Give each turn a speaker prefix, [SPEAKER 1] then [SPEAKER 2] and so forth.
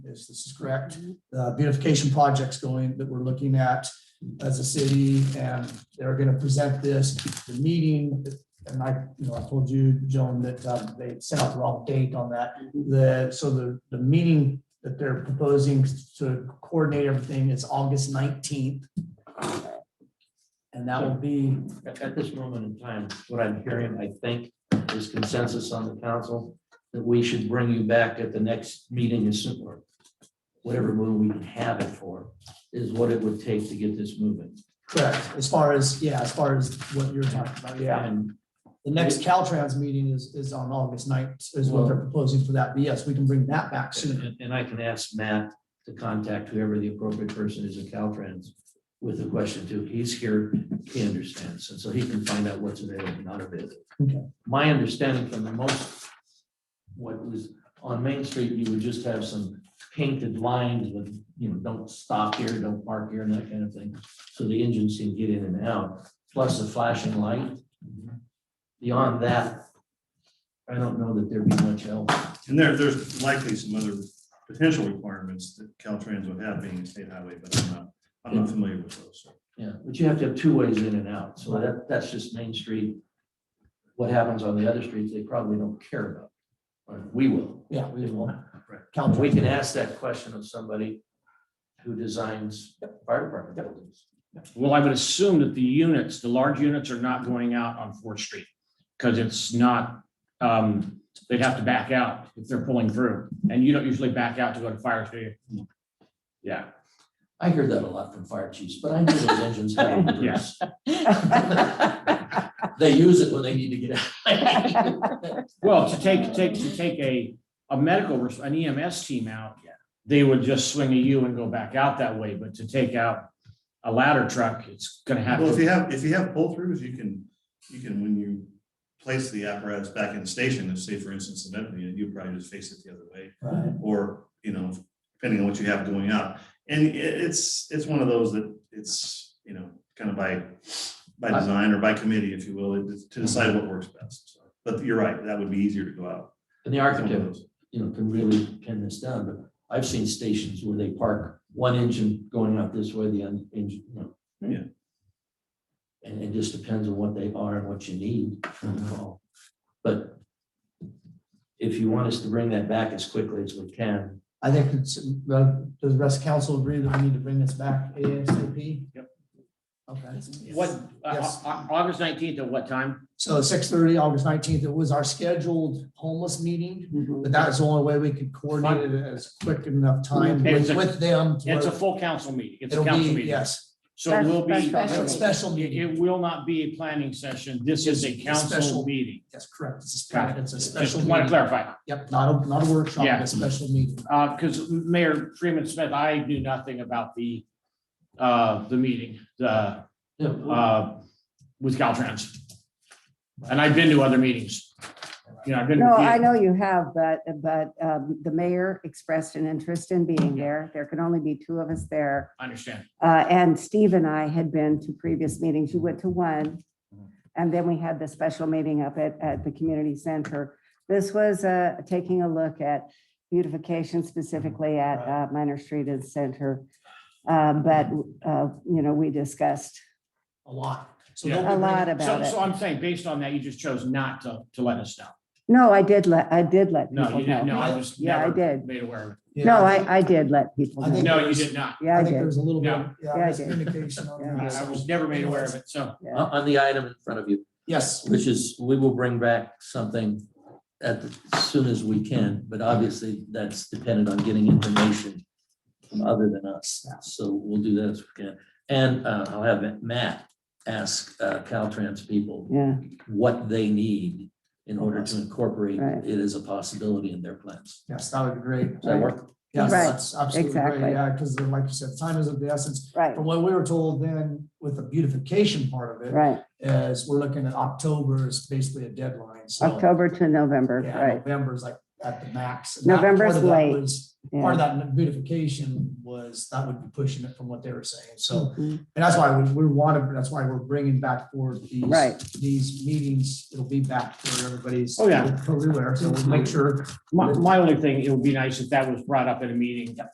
[SPEAKER 1] is this is correct. Uh, beautification projects going that we're looking at as a city and they're gonna present this, the meeting. And I, you know, I told you, Joan, that um, they sent out the wrong date on that. The, so the, the meeting that they're proposing to coordinate everything is August nineteenth. And that will be
[SPEAKER 2] At, at this moment in time, what I'm hearing, I think, is consensus on the council that we should bring you back at the next meeting as soon, or whatever move we can have it for, is what it would take to get this moving.
[SPEAKER 1] correct, as far as, yeah, as far as what you're talking about, yeah.
[SPEAKER 2] And
[SPEAKER 1] The next Caltrans meeting is, is on August 9th. is what they're proposing for that. But yes, we can bring that back soon.
[SPEAKER 2] And, and I can ask Matt to contact whoever the appropriate person is at Caltrans with the question too. He's here, he understands, and so he can find out what's available, and not available.
[SPEAKER 1] Okay.
[SPEAKER 2] My understanding from the most, what was on Main Street, you would just have some painted lines with, you know, don't stop here, don't park here, and that kind of thing. So the engines can get in and out, plus a flashing light. Beyond that, I don't know that there'd be much else.
[SPEAKER 3] And there, there's likely some other potential requirements that Caltrans would have being a state highway, but I'm not, I'm not familiar with those. so.
[SPEAKER 2] Yeah, but you have to have two ways in and out, so that, that's just Main Street. What happens on the other streets, they probably don't care about, but we will.
[SPEAKER 1] Yeah,
[SPEAKER 2] We will.
[SPEAKER 1] Caltrans.
[SPEAKER 2] We can ask that question of somebody who designs fire department buildings.
[SPEAKER 4] Well, I would assume that the units, the large units are not going out on Fourth Street because it's not, um, they'd have to back out if they're pulling through. And you don't usually back out to go to fire, do you? Yeah,
[SPEAKER 2] I hear that a lot from fire chiefs, but I knew those engines had a use. They use it when they need to get out.
[SPEAKER 4] well, to take, take, to take a, a medical, res- an EMS team out,
[SPEAKER 2] Yeah.
[SPEAKER 4] they would just swing a U and go back out that way, but to take out a ladder truck, it's gonna have
[SPEAKER 3] Well, if
[SPEAKER 4] to,
[SPEAKER 3] you have, if you have pull-throughs, you can, you can, when you place the apparatus back in the station, if say for instance, an empty, you probably just face it the other way.
[SPEAKER 1] Right.
[SPEAKER 3] Or, you know, depending on what you have going out. And i- it's, it's one of those that it's, you know, kind of by, by design or by committee, if you will, it- to decide what works best. so. But you're right, that would be easier to go out.
[SPEAKER 2] And the architect you know, can really pin this down, but I've seen stations where they park one engine going out this way, the other engine, you know.
[SPEAKER 3] Yeah.
[SPEAKER 2] And it just depends on what they are and what you need. But if you want us to bring that back as quickly as we can,
[SPEAKER 1] I think, it's, uh, does the rest of council agree that we need to bring this back ASAP?
[SPEAKER 4] Yep.
[SPEAKER 1] Okay.
[SPEAKER 4] what, uh,
[SPEAKER 1] Yes.
[SPEAKER 4] Au- August nineteenth at what time?
[SPEAKER 1] So six thirty, August nineteenth, it was our scheduled homeless meeting,
[SPEAKER 4] Mm-hmm.
[SPEAKER 1] but that is the only way we could coordinate it as quick enough time with
[SPEAKER 4] It's a-
[SPEAKER 1] with them. to
[SPEAKER 4] It's a
[SPEAKER 1] where
[SPEAKER 4] full council meeting. It's a
[SPEAKER 1] It'll
[SPEAKER 4] council
[SPEAKER 1] be,
[SPEAKER 4] meeting.
[SPEAKER 1] yes,
[SPEAKER 4] So it will be.
[SPEAKER 1] a special
[SPEAKER 4] It,
[SPEAKER 1] meeting.
[SPEAKER 4] it will not be a planning session. This is a
[SPEAKER 1] It's a special-
[SPEAKER 4] council meeting.
[SPEAKER 1] Yes, correct. It's a
[SPEAKER 4] Got
[SPEAKER 1] special, it's a
[SPEAKER 4] Just
[SPEAKER 1] special
[SPEAKER 4] want to
[SPEAKER 1] meeting.
[SPEAKER 4] clarify,
[SPEAKER 1] Yep, not a, not a workshop,
[SPEAKER 4] Yeah.
[SPEAKER 1] a special meeting.
[SPEAKER 4] uh, because Mayor Freeman Smith, I knew nothing about the, uh, the meeting, the,
[SPEAKER 2] you know,
[SPEAKER 4] uh, with Caltrans. And I've been to other meetings. You know, I've been. to
[SPEAKER 5] No,
[SPEAKER 4] a few.
[SPEAKER 5] I know you have, but, but um, the mayor expressed an interest in being there. There can only be two of us there.
[SPEAKER 4] I Understand.
[SPEAKER 5] Uh, And Steve and I had been to previous meetings. You went to one. And then we had the special meeting up at, at the community center. This was uh, taking a look at beautification specifically at uh, Minor Street and Center. Uh, But, uh, you know, we discussed
[SPEAKER 1] a lot. So
[SPEAKER 4] Yeah.
[SPEAKER 1] they'll be
[SPEAKER 5] a lot
[SPEAKER 1] bringing-
[SPEAKER 5] about
[SPEAKER 4] So,
[SPEAKER 5] it.
[SPEAKER 4] so I'm saying, based on that, you just chose not to, to let us know.
[SPEAKER 5] No, I did let, I did let
[SPEAKER 4] No,
[SPEAKER 5] people
[SPEAKER 4] you didn't. No,
[SPEAKER 5] know.
[SPEAKER 4] I was
[SPEAKER 5] Yeah, I
[SPEAKER 4] never
[SPEAKER 5] did.
[SPEAKER 4] made aware of
[SPEAKER 1] Yeah.
[SPEAKER 5] No, I, I did let people
[SPEAKER 1] I
[SPEAKER 5] know.
[SPEAKER 4] it.
[SPEAKER 1] think-
[SPEAKER 4] No, you did not.
[SPEAKER 5] Yeah,
[SPEAKER 1] I
[SPEAKER 5] I
[SPEAKER 1] think
[SPEAKER 5] did.
[SPEAKER 1] there's a little bit,
[SPEAKER 4] Yeah.
[SPEAKER 1] yeah,
[SPEAKER 5] Yeah, I did.
[SPEAKER 1] miscommunication on
[SPEAKER 4] I
[SPEAKER 1] that.
[SPEAKER 4] I was never made aware of it. So
[SPEAKER 2] on, on the item in front of you,
[SPEAKER 1] Yes,
[SPEAKER 2] which is, we will bring back something at, the- as soon as we can, but obviously that's dependent on getting information from other than us, so we'll do that as we can. And uh, I'll have Matt ask uh, Caltrans people
[SPEAKER 5] Yeah,
[SPEAKER 2] what they need in order to incorporate
[SPEAKER 5] Right.
[SPEAKER 2] it as a possibility in their plans.
[SPEAKER 1] yes, that would be great.
[SPEAKER 2] Does that work?
[SPEAKER 1] Yes,
[SPEAKER 5] Right,
[SPEAKER 1] that's absolutely
[SPEAKER 5] exactly.
[SPEAKER 1] great. Yeah, because like you said, time is of the essence.
[SPEAKER 5] right,
[SPEAKER 1] From what we were told then with the beautification part of it,
[SPEAKER 5] right.
[SPEAKER 1] is we're looking at October is basically a deadline, so.
[SPEAKER 5] October to November,
[SPEAKER 1] Yeah,
[SPEAKER 5] right.
[SPEAKER 1] November is like at the max. And that-
[SPEAKER 5] November's
[SPEAKER 1] part of that
[SPEAKER 5] late.
[SPEAKER 1] was- part of that beautification was, that would be pushing it from what they were saying, so.
[SPEAKER 5] Mhm.
[SPEAKER 1] And that's why we, we wanted, that's why we're bringing back forward these.
[SPEAKER 5] Right.
[SPEAKER 1] These meetings, it'll be back for everybody's.
[SPEAKER 4] Oh, yeah.
[SPEAKER 1] Career, so we'll make sure
[SPEAKER 4] My, my only thing, it would be nice if that was brought up at a meeting